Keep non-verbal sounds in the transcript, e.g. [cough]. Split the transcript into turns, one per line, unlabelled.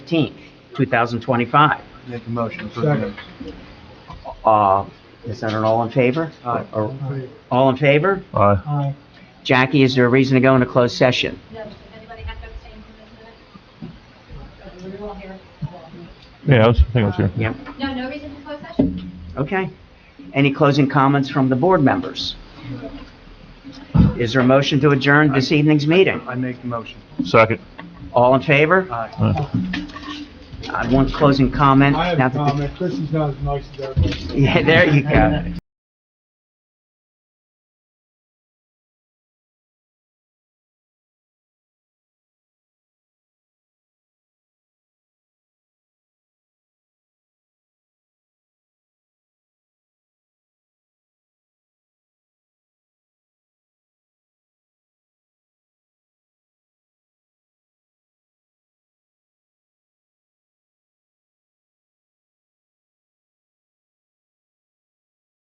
19th, 2025.
Make a motion for the...
Uh, Is that an all in favor? Uh,
Aye.
Or- All in favor?
Aye.
Aye.
Jackie, is there a reason to go into closed session?
No, does anybody have to abstain from this minute? We're all here.
Yeah, I was, I think I was here.
Yep,
No, no reason for closed session?
okay. Any closing comments from the board members? Is there a motion to adjourn this evening's meeting?
I make the motion.
Second.
All in favor?
Aye.
I want closing comment.
I have
Now
a
that the-
comment. Chrissy's not as nice as everybody.
[laughs] Yeah, there you go.